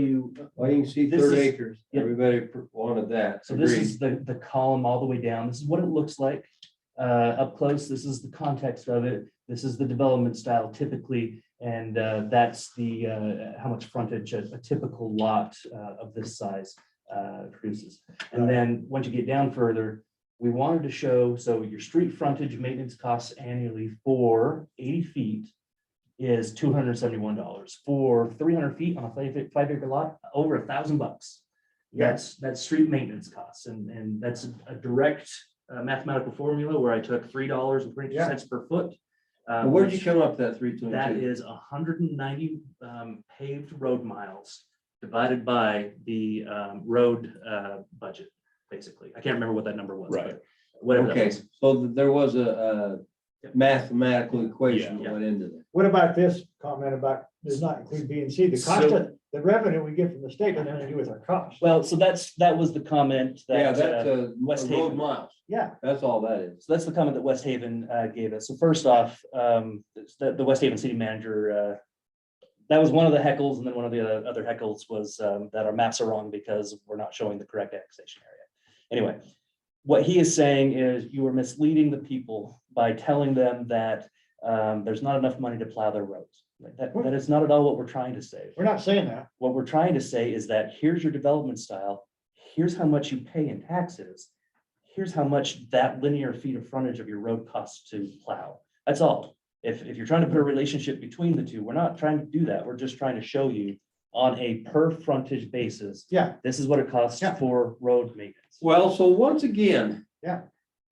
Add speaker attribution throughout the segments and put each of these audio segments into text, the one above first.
Speaker 1: you,
Speaker 2: Well, you can see
Speaker 1: This
Speaker 2: third
Speaker 1: is-
Speaker 2: acres.
Speaker 1: yeah.
Speaker 2: Everybody pr- wanted that.
Speaker 1: so this
Speaker 2: Agreed.
Speaker 1: is the, the column all the way down. This is what it looks like. Uh, up close, this is the context of it. This is the development style typically. And, uh, that's the, uh, how much frontage a, a typical lot, uh, of this size, uh, produces. And then, once you get down further, we wanted to show, so your street frontage maintenance costs annually for eighty feet is two hundred seventy-one dollars. For three hundred feet on a five, five acre lot, over a thousand bucks. That's, that's street maintenance costs and, and that's a direct uh, mathematical formula where I took three dollars and twenty cents per foot. uh,
Speaker 2: Well, Where'd you
Speaker 1: which-
Speaker 2: come up with that three
Speaker 1: that
Speaker 2: twenty-two?
Speaker 1: is hundred and ninety um paved road miles divided by the um road uh budget, basically. I can't remember what that number was.
Speaker 3: Right.
Speaker 1: but Whatever. that
Speaker 2: Okay,
Speaker 1: was.
Speaker 2: so th- there was a,
Speaker 1: Yeah.
Speaker 2: a mathematical equation
Speaker 1: Yeah.
Speaker 2: that went into that.
Speaker 4: What about this comment about, does not include B and C, the cost
Speaker 1: So-
Speaker 4: of, the revenue we get from the state has nothing to do with our cost.
Speaker 1: Well, so that's, that was the comment
Speaker 2: Yeah,
Speaker 1: that,
Speaker 2: that's
Speaker 1: uh,
Speaker 2: a
Speaker 1: West
Speaker 2: a road
Speaker 1: Haven.
Speaker 2: miles.
Speaker 4: Yeah,
Speaker 2: That's all that is.
Speaker 1: so that's the comment that West Haven uh gave us. So first off, um, the the West Haven city manager uh that was one of the heckles, and then one of the other- other heckles was um, that our maps are wrong because we're not showing the correct annexation area. Anyway, what he is saying is you are misleading the people by telling them that um, there's not enough money to plow their roads. Like, That, that is not at all what we're trying to say.
Speaker 4: we're not saying that.
Speaker 1: What we're trying to say is that here's your development style, here's how much you pay in taxes. Here's how much that linear feet of frontage of your road costs to plow. That's all. If, if you're trying to put a relationship between the two, we're not trying to do that. We're just trying to show you on a per frontage basis.
Speaker 4: Yeah.
Speaker 1: This is what it costs
Speaker 4: Yeah.
Speaker 1: for road maintenance.
Speaker 2: Well, so once again.
Speaker 4: Yeah.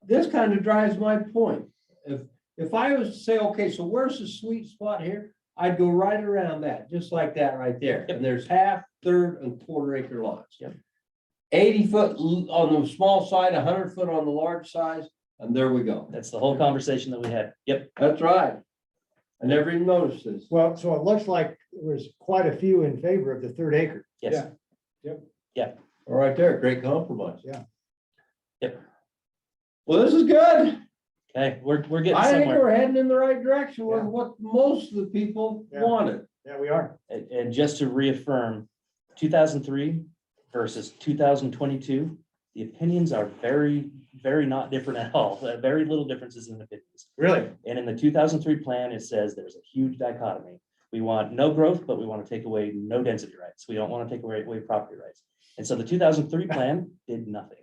Speaker 2: This kind of drives my point. If, if I was to say, okay, so where's the sweet spot here? I'd go right around that, just like that right there.
Speaker 1: Yep.
Speaker 2: And there's half, third and quarter acre lots.
Speaker 1: Yep.
Speaker 2: Eighty foot l- on the small side, hundred foot on the large size, and there we go.
Speaker 1: That's the whole conversation that we had. Yep.
Speaker 2: That's right. I never even noticed this.
Speaker 4: Well, so it looks like there was quite a few in favor of the third acre.
Speaker 1: Yes.
Speaker 4: Yeah. Yep.
Speaker 2: Right there, great compromise.
Speaker 4: Yeah.
Speaker 1: Yep.
Speaker 2: Well, this is good.
Speaker 1: Okay. We're, we're getting
Speaker 2: I think
Speaker 1: somewhere.
Speaker 2: we're heading in the right direction with
Speaker 4: Yeah.
Speaker 2: what most of the people
Speaker 4: Yeah.
Speaker 2: wanted.
Speaker 4: Yeah, we are.
Speaker 1: And, and just to reaffirm, two thousand three versus two thousand twenty-two, the opinions are very, very not different at all. There are Very little differences in opinions.
Speaker 4: Really?
Speaker 1: And in the two thousand three plan, it says there's a huge dichotomy. We want no growth, but we want to take away no density rights. We don't want to take away, away property rights. And so the two thousand three plan did nothing.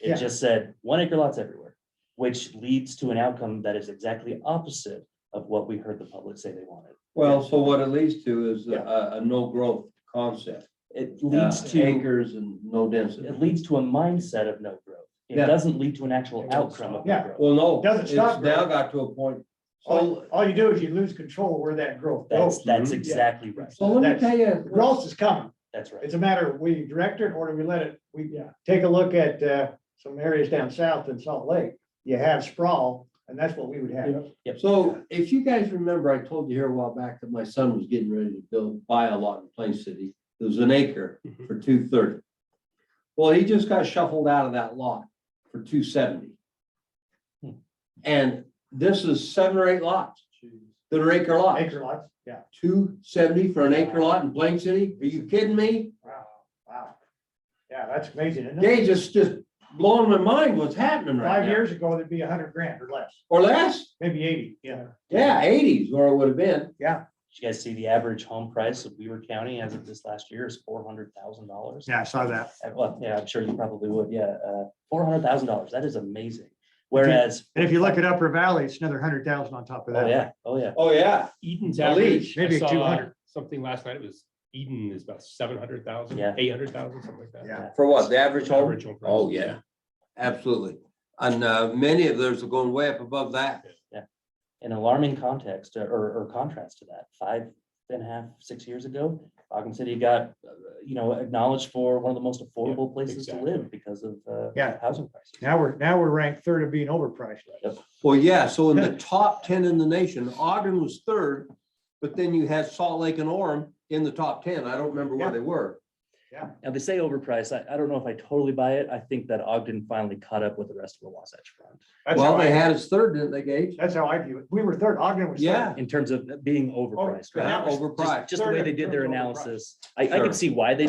Speaker 4: Yeah.
Speaker 1: It just said one acre lots everywhere, which leads to an outcome that is exactly opposite of what we heard the public say they wanted.
Speaker 2: Well, so what it leads to is
Speaker 4: Yeah.
Speaker 2: a, a no growth concept.
Speaker 1: It leads
Speaker 2: Uh,
Speaker 1: to.
Speaker 2: Acres and no density.
Speaker 1: it leads to a mindset of no growth. It
Speaker 2: Yeah.
Speaker 1: doesn't lead to an actual
Speaker 4: It doesn't
Speaker 1: outcome of
Speaker 4: stop.
Speaker 1: no
Speaker 4: Yeah.
Speaker 1: growth.
Speaker 2: Well, no.
Speaker 4: Doesn't
Speaker 2: it's
Speaker 4: stop
Speaker 2: Now
Speaker 4: growth. Oh,
Speaker 2: got to a point.
Speaker 4: All,
Speaker 2: So,
Speaker 4: all you do is you lose control where that growth
Speaker 1: That's,
Speaker 4: goes.
Speaker 1: that's
Speaker 2: mhm.
Speaker 1: exactly right.
Speaker 2: so let me
Speaker 4: that's-
Speaker 2: tell you.
Speaker 4: Growth is coming.
Speaker 1: That's right.
Speaker 4: It's a matter of we direct it or do we let it, we take a look at uh, some areas down south in Salt Lake. You have sprawl and that's what we would have.
Speaker 2: So if you guys remember, I told you here a while back that my son was getting ready to build, buy a lot in Plain City. It was an acre
Speaker 4: Mm-hmm.
Speaker 2: for two thirty. Well, he just got shuffled out of that lot for two seventy.
Speaker 1: Hmm.
Speaker 2: And this is seven or eight lots that are acre lots.
Speaker 4: Acre lots, yeah.
Speaker 2: Two seventy for an acre lot in Plain City? Are you kidding me?
Speaker 4: Wow, wow. Yeah, that's amazing, isn't it?
Speaker 2: Gage just, just blowing my mind what's happening right
Speaker 4: Five
Speaker 2: now.
Speaker 4: years ago, there'd be a hundred grand or less,
Speaker 2: Or less?
Speaker 4: maybe eighty, yeah.
Speaker 2: Yeah, eighties where it would have been.
Speaker 1: Did you guys see the average home price of Weaver County as of this last year is four hundred thousand dollars? Uh,
Speaker 4: Yeah, I saw that.
Speaker 1: Well, yeah, I'm sure you probably would. Yeah, uh, four hundred thousand dollars. That is amazing. Whereas,
Speaker 4: And if you look at Upper Valley, it's another hundred thousand on top of
Speaker 1: oh
Speaker 4: that.
Speaker 1: yeah, oh yeah,
Speaker 2: Oh, yeah.
Speaker 3: Eden's
Speaker 2: At least,
Speaker 3: average, I
Speaker 4: maybe
Speaker 3: saw uh,
Speaker 4: 200.
Speaker 3: something last night, it was Eden is about seven hundred thousand,
Speaker 1: Yeah.
Speaker 3: eight hundred thousand, something like that.
Speaker 4: Yeah.
Speaker 2: For what? The average home?
Speaker 3: Average home price.
Speaker 2: Oh, yeah, absolutely. And uh, many of those are going way up above that.
Speaker 1: an alarming context uh, or, or contrast to that. Five and a half, six years ago, Ogden City got, uh, you know, acknowledged for one of the most affordable places to
Speaker 3: exactly.
Speaker 1: live because of, uh,
Speaker 4: Yeah.
Speaker 1: housing prices.
Speaker 4: Now we're, now we're ranked third of being overpriced.
Speaker 2: Well, yeah, so in the top ten in the nation, Ogden was third, but then you had Salt Lake and Orem in the top ten. I don't remember where
Speaker 4: Yeah.
Speaker 2: they were.
Speaker 1: Now, they say overpriced. I, I don't know if I totally buy it. I think that Ogden finally caught up with the rest of the Wasatch Front
Speaker 4: That's
Speaker 2: Well,
Speaker 4: how
Speaker 2: they
Speaker 4: I,
Speaker 2: had us third, didn't they, Gage?
Speaker 4: that's how I view it. We were third, Ogden was
Speaker 2: Yeah.
Speaker 4: third.
Speaker 1: in terms of being overpriced.
Speaker 4: But
Speaker 1: right?
Speaker 2: Yeah,
Speaker 4: that was
Speaker 1: Just,
Speaker 2: Oh, Overpriced.
Speaker 1: just the way they did their analysis. I, I
Speaker 2: Sure.
Speaker 1: could see why they